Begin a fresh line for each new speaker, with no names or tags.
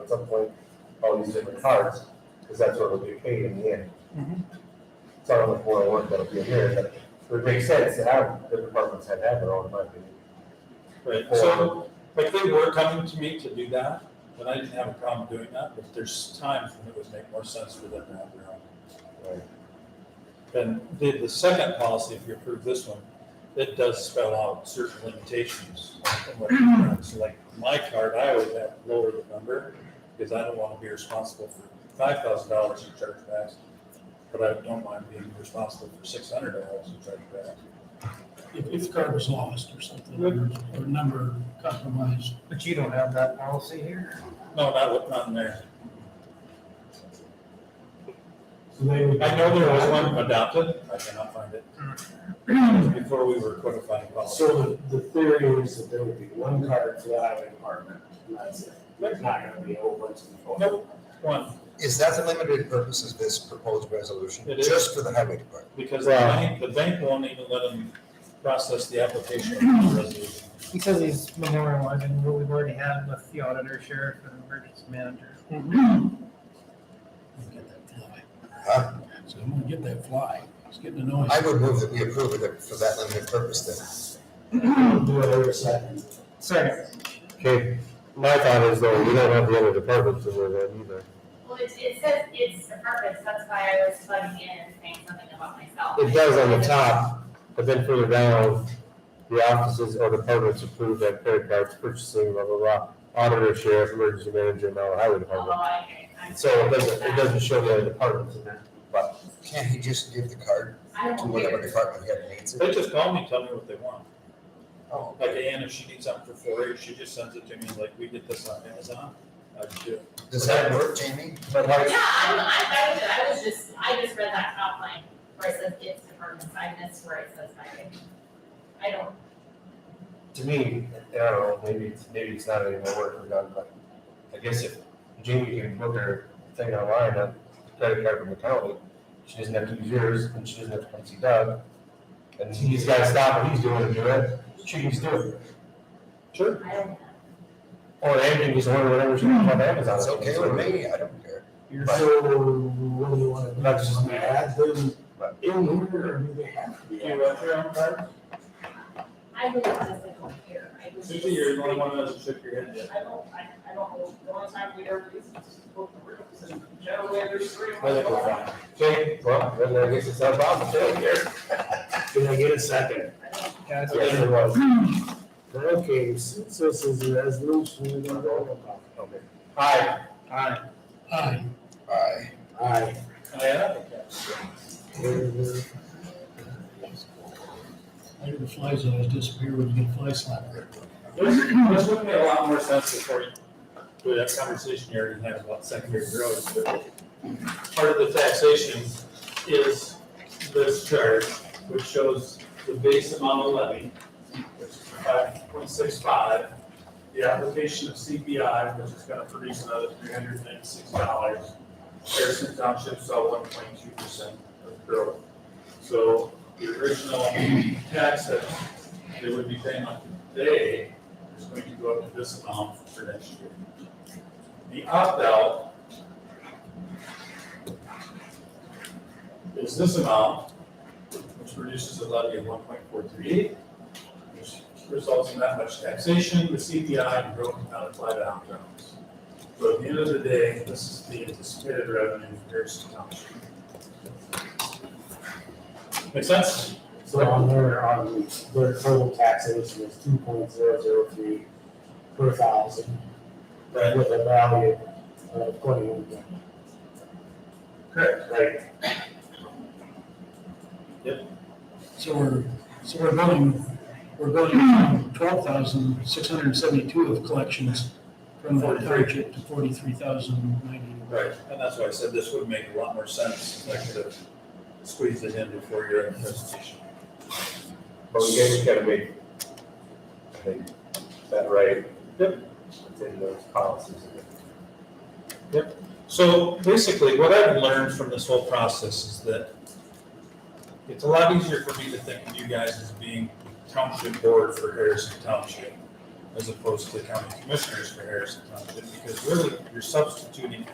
at some point, all these different cards, because that's what would be paid in the end. It's not only four oh one that'll be in there, but it would make sense to have the departments have had their own, in my opinion.
Right, so, like, they were coming to me to do that, but I didn't have a problem doing that, but there's times when it would make more sense for them to have their own.
Right.
Then, the, the second policy, if you approve this one, it does spell out certain limitations. on what you can. So like, my card, I always have lower the number, because I don't want to be responsible for five thousand dollars in chargebacks, but I don't mind being responsible for six hundred dollars in chargebacks.
If, if the card was lost or something, or or number compromised.
But you don't have that policy here?
No, not, not in there.
So they would.
I know there was one adopted, I cannot find it. It was Before we were codifying policy.
So the, the theory is that there would be one card for the highway department, and that's it. There's not gonna be a whole bunch of people.
Nope, one,
Is that the limited purpose of this proposed resolution?
It is.
Just for the highway department?
because the bank, the bank won't even let them process the application of the resolution.
Because he's memorializing what we've already had with the auditor, sheriff, and emergency manager.
Get that fly.
Huh?
So I'm gonna get that fly. It's getting annoying.
I would move that we approve it for that limited purpose then.
Do it every second.
Second,
Okay, my thought is though, we don't have the other departments in there then either.
Well, it, it says it's the purpose, that's why I was plugging in and saying something about myself.
It does on the top, but then further down, the offices or departments approved that credit cards purchasing, blah, blah, blah. Auditor, sheriff, emergency manager, and our highway
Although
department.
I agree. Oh, I'm-
So it doesn't, it doesn't show the other departments in there, but
Can't he just give the card
I don't
to whatever
care.
department head needs it?
They just call me, tell me what they want.
Oh,
Like Ann, if she needs something for four years, she just sends it to me, like, we did this on Amazon, I just do it.
Does that work, Jamie?
But like,
Yeah, I'm, I'm fine with it, I was just, I just read that top line where it says it's departments, I missed where it says highway. I don't,
to me, I don't know, maybe it's, maybe it's not any more work we've done, but I guess if Jamie can book her thing online, a credit card from the county, she doesn't have to use yours, and she doesn't have to come see Doug. And he's gotta stop what he's doing and do it, she can still do it. Sure.
I don't.
Or Andy can just order whatever she wants on Amazon.
That's okay with me, I don't care.
So what do you wanna do?
That's just-
Wanna Add them in here, or do they have to be?
Do you want your own card?
I really doesn't here, I was just.
Susie, you're the only one that hasn't shook your head yet.
I don't, I, I don't know, the only time we ever used to book the rooms and Joe, there's three. of
I think
us.
we're fine. Okay, well, then I guess it's not a problem, Shane, here.
Can I get a second?
I don't-
yeah, it's-
Yes, it was.
Okay, since this is a resolution, we're gonna roll call.
Okay. Hi,
Aye.
Aye.
Aye.
Aye.
I have, yeah.
I hear the flies always disappear when you get a fly slapper.
This, this would make a lot more sense before you, with that conversation you already had about secondary roads, but part of the taxation is this chart, which shows the base amount of levy, which is five point six five, the application of CPI, which is gonna produce another three hundred and ninety-six dollars. Harrison Township saw one point two percent of growth. So the original tax that they would be paying on today is going to go up to this amount for next year. The opt-out is this amount, which reduces the levy of one point four three eight, which results in that much taxation, the CPI, and growth cannot apply to opt-outs. So at the end of the day, this is the anticipated revenue for Harrison Township. Make sense?
So on their, on their total taxation is two point zero zero three per thousand
Right.
with a value of twenty-one.
Correct.
Right,
So we're, so we're building, we're building twelve thousand six hundred and seventy-two of collections from that
Forty-three.
target to forty-three thousand ninety.
Right, and that's why I said this would make a lot more sense, if I could have squeezed it in before your own presentation.
but we guys gotta make, I think, that right. Yep. Within those policies.
So basically, what I've learned from this whole process is that it's a lot easier for me to think of you guys as being township board for Harrison Township as opposed to county commissioners for Harrison Township, because really, you're substituting